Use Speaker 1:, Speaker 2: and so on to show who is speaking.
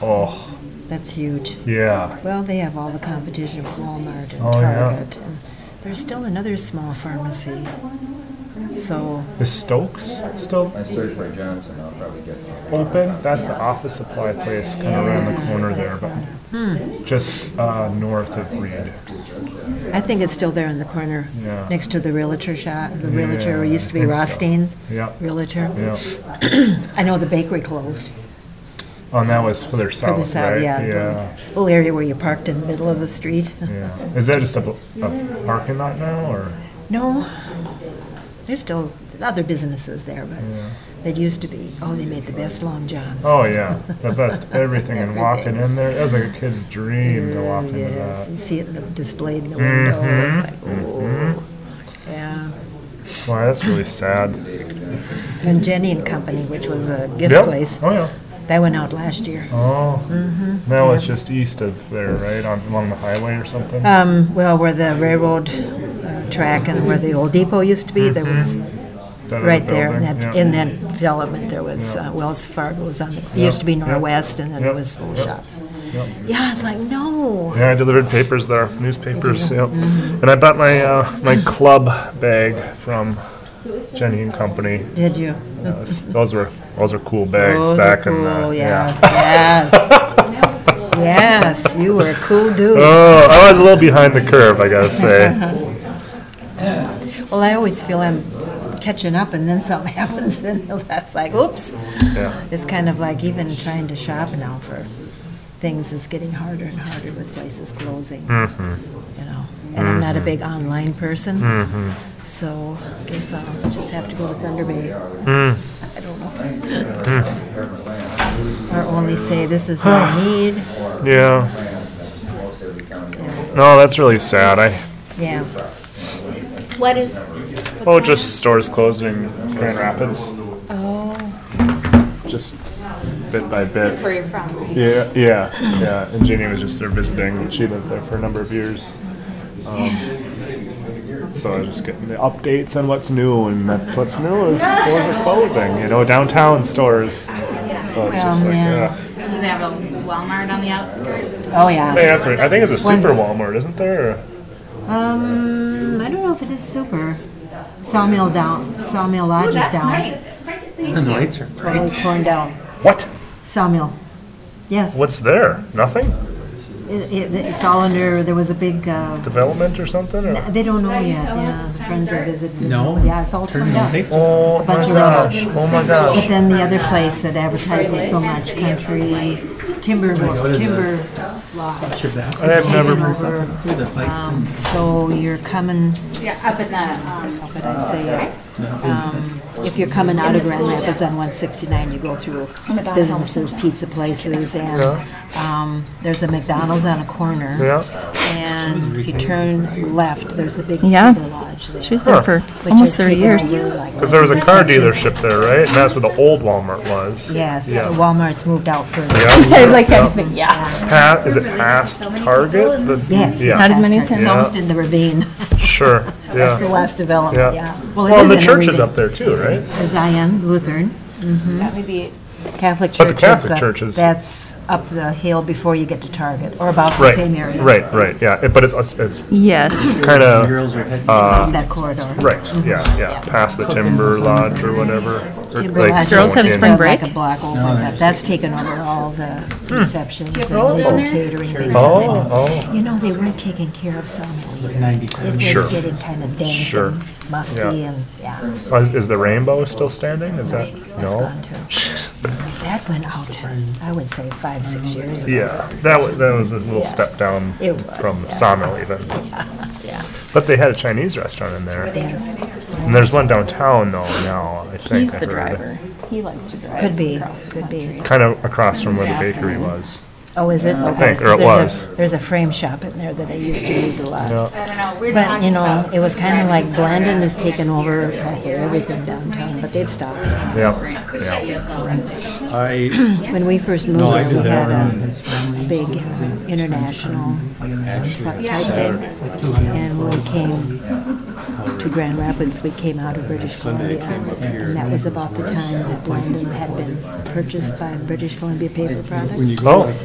Speaker 1: Oh,
Speaker 2: That's huge.
Speaker 1: yeah.
Speaker 2: Well, they have all the competition of Walmart and
Speaker 1: Oh, yeah.
Speaker 2: Target. and There's still another small pharmacy. So,
Speaker 1: Is Stokes still
Speaker 3: I search for Johnson, I'll probably get one.
Speaker 1: open? That's the office supply place kind of around the corner there, but
Speaker 2: Hmm.
Speaker 1: just uh, north of Reed.
Speaker 2: I think it's still there in the corner,
Speaker 1: Yeah.
Speaker 2: next to the Realtor shop, the Realtor,
Speaker 1: Yeah,
Speaker 2: where it used to be
Speaker 1: I think so.
Speaker 2: Rostein's
Speaker 1: Yeah,
Speaker 2: Realtor.
Speaker 1: yeah.
Speaker 2: I know the bakery closed,
Speaker 1: Oh, and that was further south,
Speaker 2: further south,
Speaker 1: right?
Speaker 2: yeah.
Speaker 1: Yeah,
Speaker 2: the Little area where you parked in the middle of the street.
Speaker 1: yeah. Is that just a, bl- a parking lot now, or?
Speaker 2: No, there's still other businesses there, but that used to be, oh, they made the best long johns.
Speaker 1: Oh, yeah. The best everything and walking
Speaker 2: Everything. Mm,
Speaker 1: in there. That was like a kid's dream to walk into
Speaker 2: Yes,
Speaker 1: that.
Speaker 2: you see it in the- displayed in the window,
Speaker 1: Mm-hmm.
Speaker 2: it's like, oh. Yeah.
Speaker 1: Wow, that's really sad.
Speaker 2: And Jenny and Company, which was a gift
Speaker 1: Yep.
Speaker 2: place,
Speaker 1: Oh, yeah.
Speaker 2: that went out last year.
Speaker 1: Oh.
Speaker 2: Mm-hmm.
Speaker 1: That was just east of there, right? On, along the highway or something?
Speaker 2: Um, well, where the railroad uh, track and where the old depot used to be, there was
Speaker 1: That other
Speaker 2: right there in
Speaker 1: Mm-hmm. building?
Speaker 2: that,
Speaker 1: Yeah.
Speaker 2: in that development, there was uh, Wells Fargo was on. It used to be
Speaker 1: Yep.
Speaker 2: Northwest, and then it
Speaker 1: Yep.
Speaker 2: was little
Speaker 1: Yep.
Speaker 2: shops. Yeah, it's like no.
Speaker 1: Yeah, I delivered papers there, newspapers. Yep.
Speaker 2: Mm-hmm.
Speaker 1: And I bought my uh, my club bag from Jenny and Company.
Speaker 2: Did you?
Speaker 1: Those, those were those are cool bags
Speaker 2: Those
Speaker 1: back
Speaker 2: were
Speaker 1: in the
Speaker 2: cool. Yes, yes, yes. You were a cool dude.
Speaker 1: Oh, I was a little behind the curve, I gotta say.
Speaker 2: Well, I always feel I'm catching up, and then something happens, then that's like, oops.
Speaker 1: yeah.
Speaker 2: It's kind of like even trying to shop now for things is getting harder and harder with places closing. You know, and I'm not a big online person, so I guess I'll just have to go to Thunder Bay. I don't know. Or only say this is what I need.
Speaker 1: Yeah.
Speaker 2: Yeah.
Speaker 1: No, that's really sad. I
Speaker 2: yeah.
Speaker 4: What is? what's
Speaker 1: oh,
Speaker 4: going
Speaker 1: just stores closing in Grand Rapids,
Speaker 4: on? Oh,
Speaker 1: just bit by
Speaker 4: that's where
Speaker 1: bit.
Speaker 4: you're from.
Speaker 1: Yeah, yeah, yeah. And Jeannie was just there visiting. She lived there for a number of years. Um, so I was just getting the updates on what's new, and that's what's new is stores are closing. You know, downtown stores. So it's just like,
Speaker 2: Well, yeah.
Speaker 1: yeah.
Speaker 4: Does it have a Walmart on the outskirts?
Speaker 2: Oh yeah.
Speaker 1: They have, I think it's a super Walmart, isn't there? Or-
Speaker 2: Um, I don't know if it is super. Sawmill down. Sawmill Lodge
Speaker 4: Ooh,
Speaker 2: is
Speaker 4: that's
Speaker 2: down.
Speaker 4: nice.
Speaker 5: And the lights are
Speaker 2: Totally
Speaker 5: bright.
Speaker 2: torn down.
Speaker 1: What?
Speaker 2: Sawmill. Yes.
Speaker 1: What's there? Nothing?
Speaker 2: It, it, it's all under, there was a big, uh,
Speaker 1: Development or something? Or?
Speaker 2: they don't know yet, yeah, the friends that visited.
Speaker 5: No.
Speaker 2: Yeah, it's all turned down.
Speaker 5: They just-
Speaker 1: Oh my
Speaker 2: bunch of
Speaker 1: gosh! Oh my
Speaker 2: But
Speaker 1: gosh!
Speaker 2: then the other place that advertises so much, Country Timber, Timber Lodge.
Speaker 5: Your baskets
Speaker 1: I've
Speaker 5: are
Speaker 1: never-
Speaker 2: taken over.
Speaker 5: through the pipes and-
Speaker 2: So you're coming,
Speaker 4: Yeah, up in the,
Speaker 2: how
Speaker 4: um,
Speaker 2: could I say it? Um, If you're coming out of Grand Rapids on one sixty-nine, you go through businesses, pizza places, and, um, there's a McDonald's on a corner.
Speaker 1: Yeah.
Speaker 2: And if you turn left, there's a big
Speaker 6: Yeah.
Speaker 2: timber lodge there.
Speaker 6: She was
Speaker 1: Huh.
Speaker 6: there for
Speaker 2: which
Speaker 6: almost
Speaker 2: has
Speaker 6: 30
Speaker 2: taken
Speaker 6: years.
Speaker 2: over, like,
Speaker 1: Because there was a car dealership there, right? And that's where the old Walmart was.
Speaker 2: Yes,
Speaker 1: Yeah.
Speaker 2: the Walmart's moved out further.
Speaker 1: Yeah.
Speaker 6: I like everything, yeah.
Speaker 1: Pa- is it past Target? The-
Speaker 2: Yes.
Speaker 1: Yeah.
Speaker 6: Not as many as
Speaker 2: It's
Speaker 6: him.
Speaker 2: almost in the ravine.
Speaker 1: Sure.
Speaker 2: That's the
Speaker 1: Yeah.
Speaker 2: last development, yeah.
Speaker 1: Yeah. Well, and the church is up there too, right?
Speaker 2: Zion Lutheran Mm-hmm.
Speaker 6: That may be
Speaker 2: Catholic Church.
Speaker 1: But the
Speaker 2: is,
Speaker 1: Catholic
Speaker 2: uh,
Speaker 1: church is-
Speaker 2: That's up the hill before you get to Target, or about the
Speaker 1: Right.
Speaker 2: same area.
Speaker 1: Right. Right. Yeah. It, but it's it's
Speaker 6: Yes.
Speaker 1: kind
Speaker 5: The
Speaker 1: of
Speaker 5: girls are heading.
Speaker 2: It's off that corridor.
Speaker 1: Uh, right. Yeah. Yeah. Past the Timber Lodge or whatever. Or,
Speaker 2: Timber
Speaker 1: like,
Speaker 2: Lodge
Speaker 6: Girls
Speaker 2: is
Speaker 6: have
Speaker 2: just
Speaker 6: spring
Speaker 2: about Like
Speaker 6: break?
Speaker 2: a block over, but that's taken over all the receptions and
Speaker 4: roll down
Speaker 2: legal
Speaker 4: there?
Speaker 2: catering. because
Speaker 1: Hmm. Oh.
Speaker 2: it's-
Speaker 1: Oh.
Speaker 2: You know, they weren't taking care of Sawmill either. It
Speaker 5: 97.
Speaker 2: was
Speaker 1: Sure.
Speaker 2: getting kind of dank
Speaker 1: Sure.
Speaker 2: and musty,
Speaker 1: Yeah.
Speaker 2: and yeah, it's
Speaker 1: Oh, Is, is the rainbow still standing? Is that no?
Speaker 2: gone too. That went out, I would say, five, six years ago.
Speaker 1: Yeah, that was, that was a little step down
Speaker 2: It was,
Speaker 1: from Sawmill even.
Speaker 2: yeah.
Speaker 1: But they had a Chinese restaurant in there.
Speaker 2: Yes,
Speaker 1: And there's one downtown though now, I think.
Speaker 6: He's
Speaker 1: I
Speaker 6: the
Speaker 1: heard.
Speaker 6: driver. He likes to drive.
Speaker 2: could be,
Speaker 6: across the
Speaker 2: could be.
Speaker 1: Kind of across from where the bakery was.
Speaker 2: Oh, is it?
Speaker 1: I think, or it was.
Speaker 2: There's a frame shop in there that I used to use a lot.
Speaker 1: Yeah.
Speaker 4: I don't know, we're
Speaker 2: But,
Speaker 4: talking
Speaker 2: you know,
Speaker 4: about.
Speaker 2: it was kind of like Blandon has taken over like, everything downtown, but they've stopped.
Speaker 1: Yep. Yeah.
Speaker 7: I
Speaker 2: When we first moved
Speaker 7: No, I
Speaker 2: there,
Speaker 7: did
Speaker 2: we
Speaker 7: that
Speaker 2: had a
Speaker 7: around-
Speaker 2: big uh, international truck
Speaker 7: actually
Speaker 2: type thing.
Speaker 7: Saturday.
Speaker 2: And when we came to Grand Rapids, we came out of British
Speaker 7: Sunday I
Speaker 2: Columbia.
Speaker 7: came up here
Speaker 2: And that was about the time that Blandon had been purchased by British Columbia Paper Products.
Speaker 7: When you
Speaker 1: Oh.